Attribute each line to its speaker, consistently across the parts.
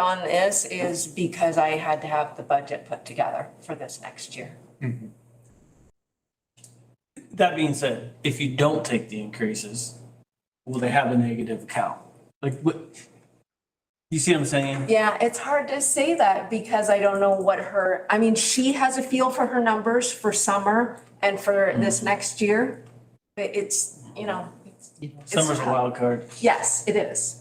Speaker 1: on this is because I had to have the budget put together for this next year.
Speaker 2: That being said, if you don't take the increases, will they have a negative account? Like what? You see what I'm saying?
Speaker 1: Yeah, it's hard to say that because I don't know what her, I mean, she has a feel for her numbers for summer and for this next year. But it's, you know, it's- it's
Speaker 2: Summer's a
Speaker 1: tough.
Speaker 2: wild card.
Speaker 1: Yes, it is.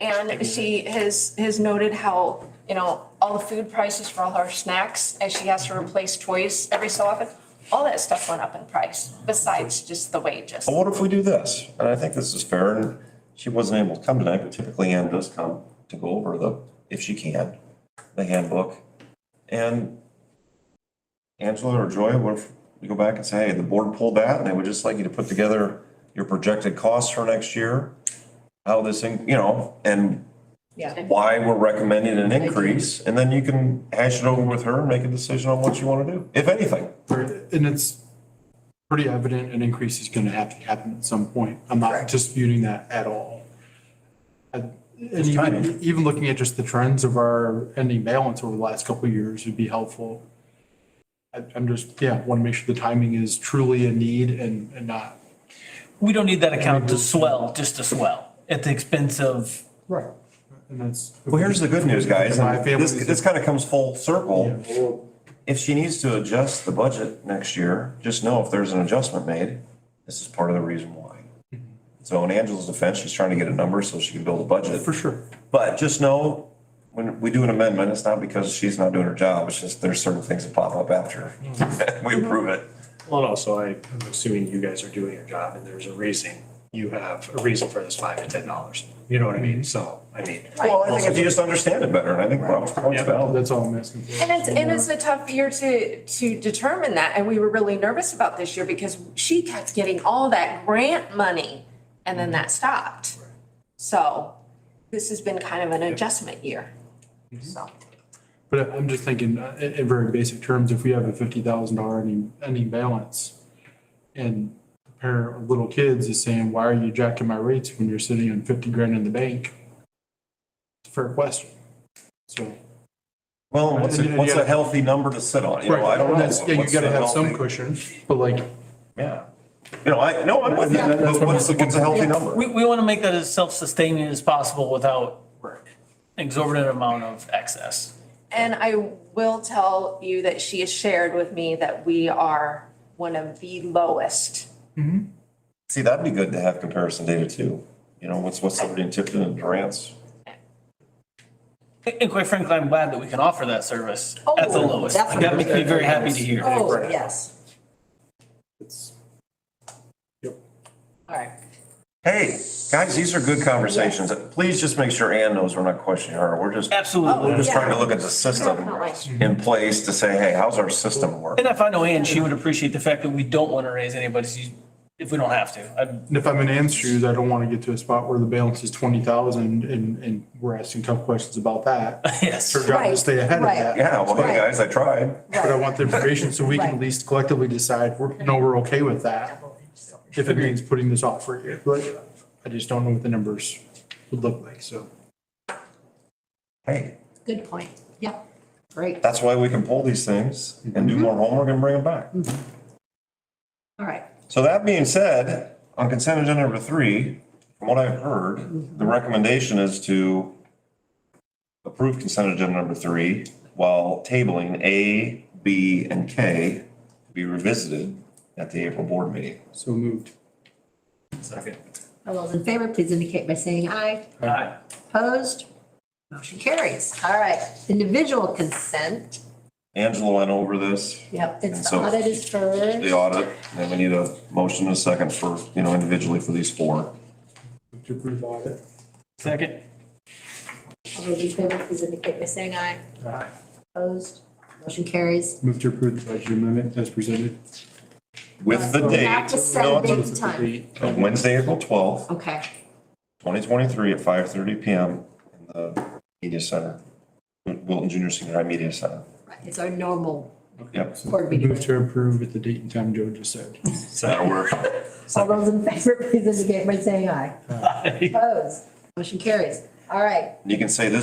Speaker 1: And she has, has noted how, you know, all the food prices for all her snacks, and she has to replace toys every so often. All that stuff went up in price, besides just the wages.
Speaker 3: Well, what if we do this? And I think this is fair, and she wasn't able to come tonight, but typically Ann does come to go over the, if she can, the handbook. And Angela or Joy, what if we go back and say, hey, the board pulled that, and they would just like you to put together your projected costs for next year? How this, thing, you know, and
Speaker 4: Yeah.
Speaker 3: why we're recommending an increase, and then you can hash it over with her and make a decision on what you want to do, if anything.
Speaker 5: And it's pretty evident an increase is gonna have to happen at some point. I'm not disputing that at all. And and even,
Speaker 3: timing.
Speaker 5: even looking at just the trends of our ending balance over the last couple of years would be helpful. I, I'm just, yeah, wanna make sure the timing is truly a need and, and not.
Speaker 2: We don't need that account to swell, just to swell at the expense of,
Speaker 5: Right. And that's.
Speaker 3: Well, here's the good news, guys,
Speaker 5: My
Speaker 3: and this,
Speaker 5: family's-
Speaker 3: this kind of comes full circle.
Speaker 5: Yeah, well,
Speaker 3: If she needs to adjust the budget next year, just know if there's an adjustment made, this is part of the reason why.
Speaker 5: Mm-hmm.
Speaker 3: So in Angela's defense, she's trying to get a number so she can build a budget.
Speaker 5: For sure.
Speaker 3: But just know, when we do an amendment, it's not because she's not doing her job, it's just there's certain things that pop up after
Speaker 5: Mm-hmm.
Speaker 3: we approve it.
Speaker 6: Well, and also I, I'm assuming you guys are doing your job and there's a reason, you have a reason for this five to ten dollars. You know what I
Speaker 5: Mm-hmm.
Speaker 6: mean? So, I mean,
Speaker 3: Well, I think if you just understand it better, and I think Rob's point's
Speaker 6: Yeah.
Speaker 3: valid.
Speaker 5: That's all I'm asking for.
Speaker 1: And it's, and it's a tough year to, to determine that, and we were really nervous about this year because she kept getting all that grant money, and then that stopped. So, this has been kind of an adjustment year,
Speaker 5: Mm-hmm.
Speaker 1: so.
Speaker 5: But I'm just thinking, uh, in, in very basic terms, if we have a fifty thousand dollar ending, ending balance and a pair of little kids is saying, why are you jacking my rates when you're sitting on fifty grand in the bank? It's a fair question. So.
Speaker 3: Well, what's a, what's a healthy number to sit on? You know, I don't know.
Speaker 5: That's- Yeah, you
Speaker 3: What's
Speaker 5: gotta
Speaker 3: a
Speaker 5: have some
Speaker 3: healthy-
Speaker 5: cushion, but like,
Speaker 3: Yeah. You know, I, no, I'm with you,
Speaker 5: That's what
Speaker 3: but
Speaker 5: I'm
Speaker 3: what's,
Speaker 5: looking
Speaker 3: what's a healthy number?
Speaker 2: we, we want to make that as self-sustaining as possible without exorbitant amount of excess.
Speaker 1: And I will tell you that she has shared with me that we are one of the lowest.
Speaker 3: See, that'd be good to have comparison data too. You know, what's, what's somebody in Tipton and Durant's?
Speaker 2: And quite frankly, I'm glad that we can offer that service at the
Speaker 4: Oh,
Speaker 2: lowest. Like, That
Speaker 4: definitely.
Speaker 2: makes me very happy to hear.
Speaker 4: Oh, yes.
Speaker 5: it's,
Speaker 4: All right.
Speaker 3: Hey, guys, these are good conversations. Please just make sure Ann knows we're not questioning her. We're just,
Speaker 2: Absolutely.
Speaker 3: we're just
Speaker 4: yeah.
Speaker 3: trying to look at the system in place to say, hey, how's our system work?
Speaker 2: And if I know Ann, she would appreciate the fact that we don't want to raise anybody's, u- if we don't have to. I'm-
Speaker 5: and if I'm in Ann's shoes, I don't wanna get to a spot where the balance is twenty thousand and, and we're asking tough questions about that.
Speaker 2: Yes.
Speaker 5: Her job is
Speaker 4: Right,
Speaker 5: to stay ahead of
Speaker 4: right.
Speaker 5: that.
Speaker 3: Yeah, well, hey,
Speaker 4: Right.
Speaker 3: guys, I tried.
Speaker 5: But I want the information so we can at
Speaker 4: Right.
Speaker 5: least collectively decide, we're, no, we're okay with that. If it means putting this off for a year, but I just don't know what the numbers would look like, so.
Speaker 3: Hey,
Speaker 4: Good point. Yeah. Great.
Speaker 3: that's why we can pull these things and do more homework and bring them back.
Speaker 4: All right.
Speaker 3: So that being said, on consent agenda number three, from what I've heard, the recommendation is to approve consent agenda number three while tabling A, B, and K to be revisited at the April board meeting.
Speaker 5: So moved.
Speaker 6: second.
Speaker 4: All those in favor, please indicate by saying aye.
Speaker 2: Aye.
Speaker 4: Opposed? Motion carries. All right. Individual consent.
Speaker 3: Angela went over this,
Speaker 4: Yep,
Speaker 3: And
Speaker 4: it's the
Speaker 3: so-
Speaker 4: audit is
Speaker 3: the
Speaker 4: first.
Speaker 3: audit, and then we need a motion and a second for, you know, individually for these four.
Speaker 5: To approve audit.
Speaker 2: Second.
Speaker 4: All those in favor, please indicate by saying aye.
Speaker 5: Aye.
Speaker 4: Opposed? Motion carries.
Speaker 5: Move to approve the budget amendment as presented.
Speaker 3: With the
Speaker 4: We
Speaker 3: date.
Speaker 4: have to set a
Speaker 3: no,
Speaker 4: date.
Speaker 3: it's-
Speaker 4: Big time.
Speaker 3: of Wednesday, April twelfth,
Speaker 4: Okay.
Speaker 3: twenty twenty-three at five thirty PM in the media center, Wilton Junior Senior High Media Center.
Speaker 4: It's our normal
Speaker 3: Yep.
Speaker 4: board meeting.
Speaker 5: Move to approve at the date and time Joe just said.
Speaker 3: That'll work.
Speaker 4: All those in favor, please indicate by saying aye. Opposed? Motion carries. All right.
Speaker 3: You can say this